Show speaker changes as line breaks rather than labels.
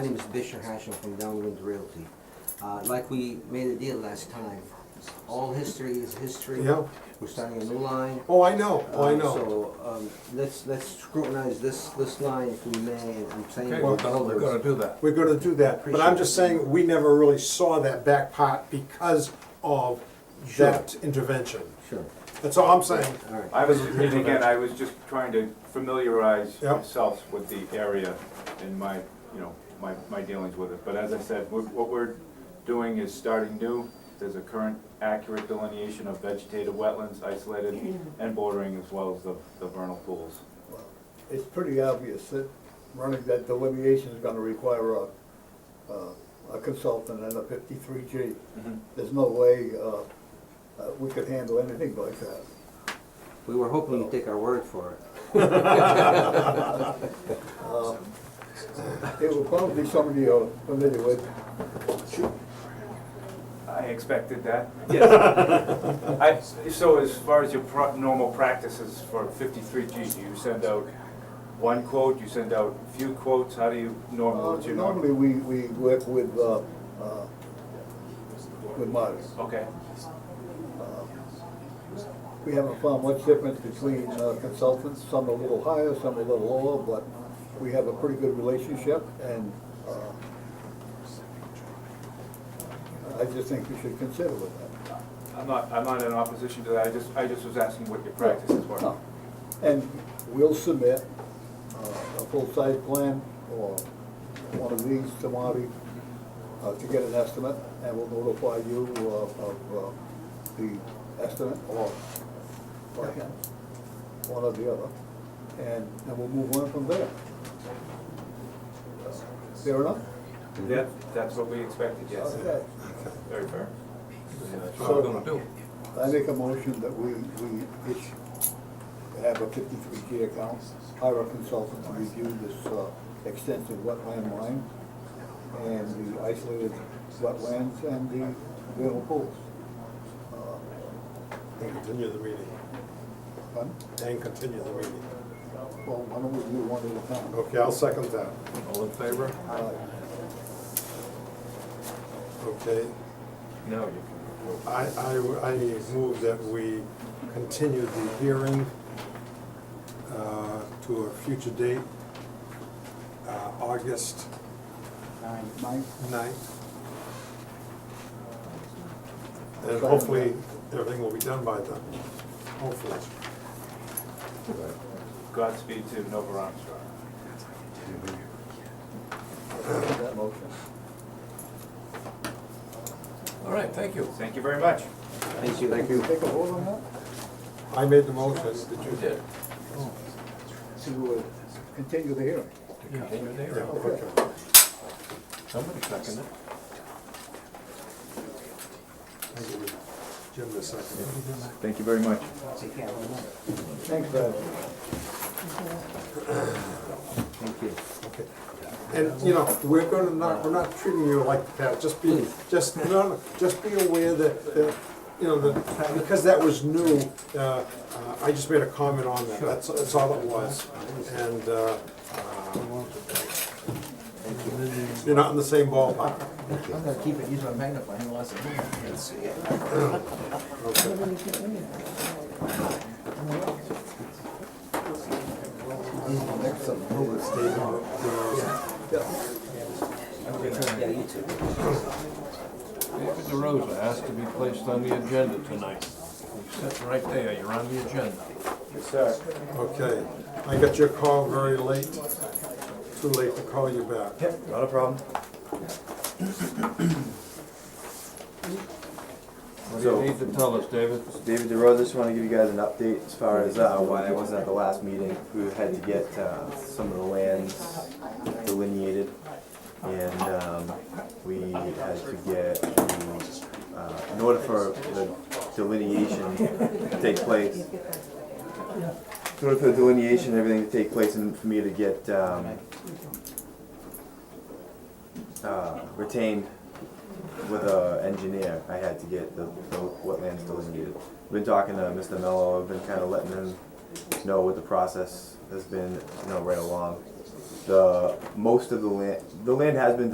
My name is Bishop Hashem from Downwind Realty. Uh, Like we made a deal last time, all history is history.
Yeah.
We're starting a new line.
Oh, I know, oh, I
Uh,
know.
So um, let's let's scrutinize this this line if we may, and I'm saying
Okay,
we're
we're gonna, we're gonna
builders.
do that.
We're gonna do that, but I'm just
Appreciate it.
saying, we never really saw that back part because of
Sure.
that intervention.
Sure,
That's all I'm saying.
all right.
I was, and again, I was just trying to familiarize
Yep.
myself with the area and my, you know, my, my dealings with it. But as I said, what what we're doing is starting new. There's a current accurate delineation of vegetated wetlands isolated and bordering as well as the, the vernal pools.
It's pretty obvious that running that delineation is gonna require a, uh, a consultant and a fifty-three G. There's no way, uh, uh, we could handle anything like that.
We were hoping you'd take our word for it.
Uh, It will probably be somebody you're familiar with.
I expected that, yes. I, so as far as your pro- normal practices for fifty-three G, do you send out one quote, you send out a few quotes, how do you normally,
Uh,
what's your norm-
Normally, we, we work with, uh, uh, with Marty.
Okay,
We haven't found much difference between uh, consultants, some a little higher, some a little lower, but we have a pretty good relationship, and uh, I just think we should consider with that.
I'm not, I'm not in opposition to that, I just, I just was asking what your practices were.
No. And we'll submit uh, a full site plan or one of these to Marty uh, to get an estimate, and we'll notify you uh, of uh, the estimate or by him, one or the other, and, and we'll move on from there. Fair enough?
That, that's what we expected, yes.
Okay.
Very fair.
That's what we're gonna do.
I make a motion that we, we each have a fifty-three G account, hire a consultant to review this uh, extensive wetland line and the isolated wetlands and the vernal pools. Uh,
And continue the meeting,
Pardon?
and continue the meeting.
Well, why don't we do one at a time?
Okay, I'll second that.
All in favor?
Uh,
Okay,
No, you can.
I, I, I move that we continue the hearing uh, to a future date, uh, August
Mike?
ninth. And hopefully, everything will be done by then, hopefully.
Godspeed to Nova Armstrong.
I'll make that motion.
All right, thank you.
Thank you very much.
Thank you. Thank
Take a vote on that?
I made the motion, did you?
You did.
To uh, continue the hearing.
Continue
Yeah,
there.
okay.
Somebody second it.
Jim, the second.
Mm-hmm.
Thank you very much.
Thanks, Brad.
Thank you.
Okay. And, you know, we're gonna not, we're not treating you like that, just be, just, no, no, just be aware that, that, you know, that, because that was new, uh, uh, I just made a comment on that, that's, that's all it was. And, uh, uh, you're not in the same ballpark.
I'm gonna keep it, use my magnifying glass and move it. See it.
Okay.
Yeah, you too.
David DeRosa asked to be placed on the agenda tonight. He's sitting right there, you're on the agenda.
Yes, sir.
Okay, I got your call very late, too late to call you back.
Yep, not a problem.
What
So-
do you need to tell us, David?
David DeRosa, just want to give you guys an update as far as uh, why I wasn't at the last meeting. We had to get uh, some of the lands delineated, and um, we had to get, the, uh, in order for the delineation to take place, in order for the delineation and everything to take place, and for me to get um, uh, retained with an engineer, I had to get the, the wetlands delineated. Been talking to Mr. Mello, I've been kinda letting him know what the process has been, you know, right along. the, most of the land, the land has been